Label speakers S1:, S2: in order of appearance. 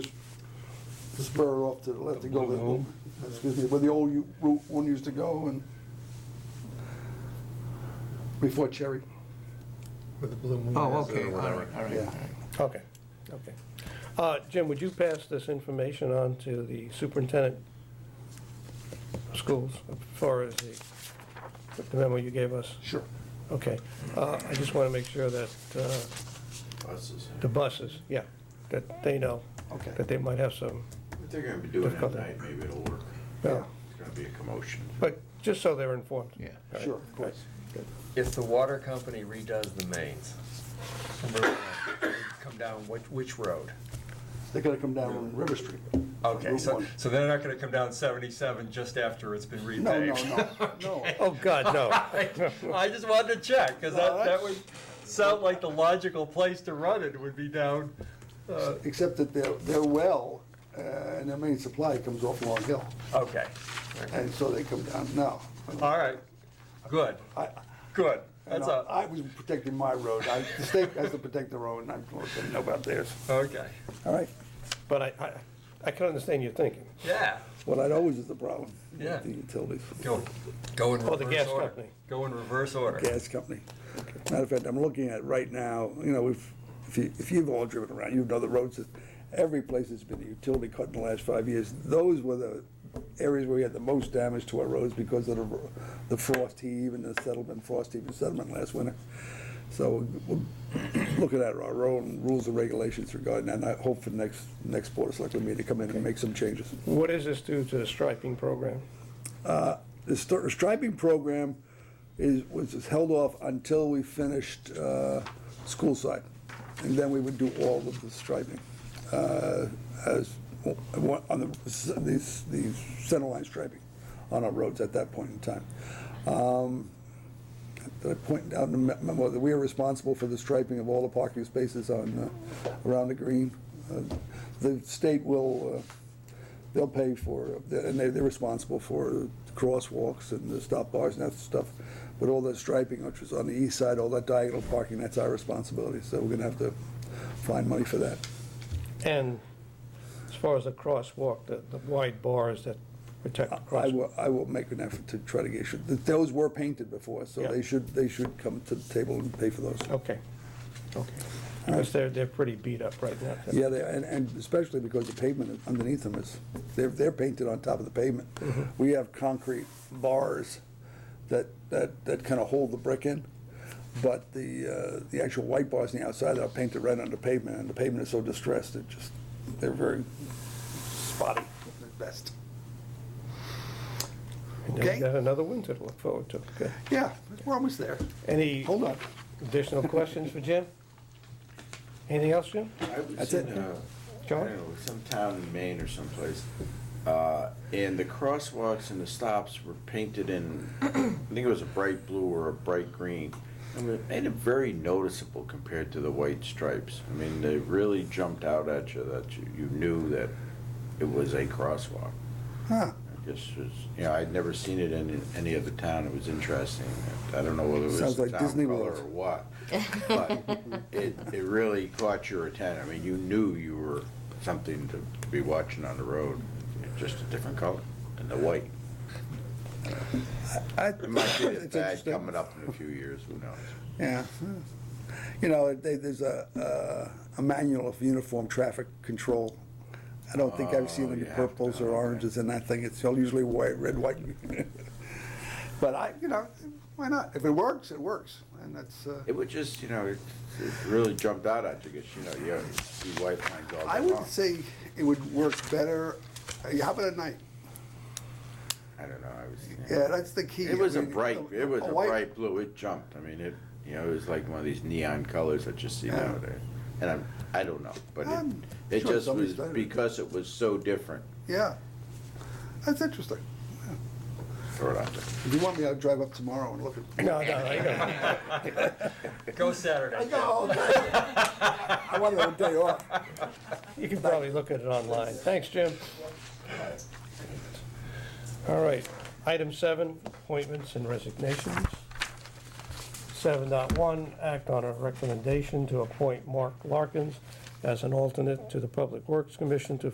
S1: the spur off to let it go, excuse me, where the old u- Route 1 used to go and before Cherry.
S2: with the blue moon.
S3: Oh,
S2: is, or
S3: okay, all right,
S2: whatever.
S3: all right,
S1: Yeah.
S3: all right.
S4: Okay, okay. Uh, Jim, would you pass this information on to the superintendent of schools as far as the the memo you gave us?
S1: Sure.
S4: Okay. Uh, I just want to make sure that uh,
S5: buses.
S4: the buses, yeah, that they know
S1: Okay.
S4: that they might have some,
S5: If they're gonna be doing it at
S4: Difficult.
S5: night, maybe it'll work.
S4: yeah,
S5: It's gonna be a commotion.
S4: but just so they're informed.
S3: Yeah.
S4: All right.
S1: Sure, of course.
S6: If the water company redoes the mains, number one, they come down which, which road?
S1: They're gonna come down on River Street.
S6: Okay,
S1: Route
S6: so,
S1: 1.
S6: so they're not gonna come down seventy-seven just after it's been repaved?
S1: No, no, no, no.
S4: Oh, God, no.
S6: I just wanted to check, because
S1: No,
S6: that, that
S1: that's-
S6: would sound like the logical place to run it, would be down, uh,
S1: Except that their, their well uh, and their main supply comes off Long Hill,
S6: okay,
S1: and so they come down now.
S6: all right, good,
S1: I-
S6: good,
S1: And
S6: that's
S1: I
S6: all,
S1: I was protecting my road. I- The state has to protect their road, and I don't know about theirs.
S6: okay,
S1: All right?
S4: But I, I, I can understand your thinking.
S6: yeah,
S1: Well, that always is the problem. with
S6: Yeah.
S1: The utilities,
S6: go, go in
S4: Oh, the
S6: reverse
S4: gas
S6: order,
S4: company.
S6: go in reverse order,
S1: gas company. Matter of fact, I'm looking at right now, you know, if, if you, if you've all driven around, you know the roads, that- every place has been a utility cut in the last five years. Those were the areas where we had the most damage to our roads because of the, the frost heave and the settlement, frost heave and settlement last winter. So we're looking at our own rules and regulations regarding that, and I hope for the next, next board of selectmen meeting to come in and make some changes.
S4: What does this do to the striping program?
S1: the stri- striping program is, was is held off until we finished uh, school side. And then we would do all of the striping uh, as, on the, the, the center line striping on our roads at that point in time. Um, Did I point out in the me- memo that we are responsible for the striping of all the parking spaces on, uh, around the green? Uh, The state will uh, they'll pay for, and they- they're responsible for crosswalks and the stop bars and that stuff. But all that striping, which was on the east side, all that diagonal parking, that's our responsibility. So we're gonna have to find money for that.
S4: And as far as the crosswalk, the the wide bars that protect the
S1: I
S4: crosswalk.
S1: will, I will make an effort to try to get, should- those were painted before, so
S4: Yeah.
S1: they should, they should come to the table and pay for those.
S4: Okay, okay. Because they're, they're pretty beat up right now.
S1: Yeah, they, and, and especially because the pavement underneath them is, they're, they're painted on top of the pavement. We have concrete bars that, that, that kind of hold the brick in, but the, uh, the actual white bars on the outside are painted right on the pavement, and the pavement is so distressed, it just, they're very spotty at best.
S4: And then we
S1: okay.
S4: got another winter to look forward to. Good.
S1: Yeah, we're almost there.
S4: Any
S1: Hold on.
S4: additional questions for Jim? Anything else, Jim?
S5: I was
S1: That's
S5: in,
S1: it.
S5: uh, I
S4: John?
S5: don't know, some town in Maine or someplace, uh, and the crosswalks and the stops were painted in, I think it was a bright blue or a bright green. I mean, it made it very noticeable compared to the white stripes. I mean, they really jumped out at you, that you, you knew that it was a crosswalk.
S1: Huh.
S5: I guess it's, you know, I'd never seen it in any other town. It was interesting. I don't know whether it was
S1: Sounds
S5: the
S1: like
S5: town
S1: Disney
S5: color
S1: World.
S5: or what, but it, it really caught your attention. I mean, you knew you were something to, to be watching on the road. It's Just a different color and the white.
S1: I-
S5: It might
S1: it's
S5: be as bad
S1: interesting.
S5: coming up in a few years. Who knows?
S1: Yeah. You know, they, there's a, uh, a manual of uniform traffic control. I don't think I've seen
S5: Oh,
S1: any
S5: you have to,
S1: purples or
S5: okay.
S1: oranges in that thing. It's usually white, red, white. But I, you know, why not? If it works, it works. And that's, uh,
S5: It would just, you know, it, it really jumped out at you because, you know, you see white lines all day
S1: I would
S5: long.
S1: say it would work better, uh, how about at night?
S5: I don't know. I was.
S1: Yeah, that's the key.
S5: It was
S1: I
S5: a
S1: mean,
S5: bright, it was a
S1: white-
S5: bright blue, it jumped, I mean, it, you know, it was like one of these neon colors that you see
S1: Yeah.
S5: nowadays. And I'm, I don't know, but
S1: I'm
S5: it, it
S1: sure
S5: just
S1: somebody's
S5: was,
S1: done it.
S5: because it was so different,
S1: Yeah. That's interesting.
S5: throw it out there.
S1: If you want me, I'll drive up tomorrow and look at.
S4: No, no, I don't.
S6: go Saturday.
S1: I got all day. I want a day off.
S4: You can probably look at it online. Thanks, Jim. All right, item seven, appointments and resignations. Seven dot one, act on a recommendation to appoint Mark Larkins as an alternate to the Public Works Commission to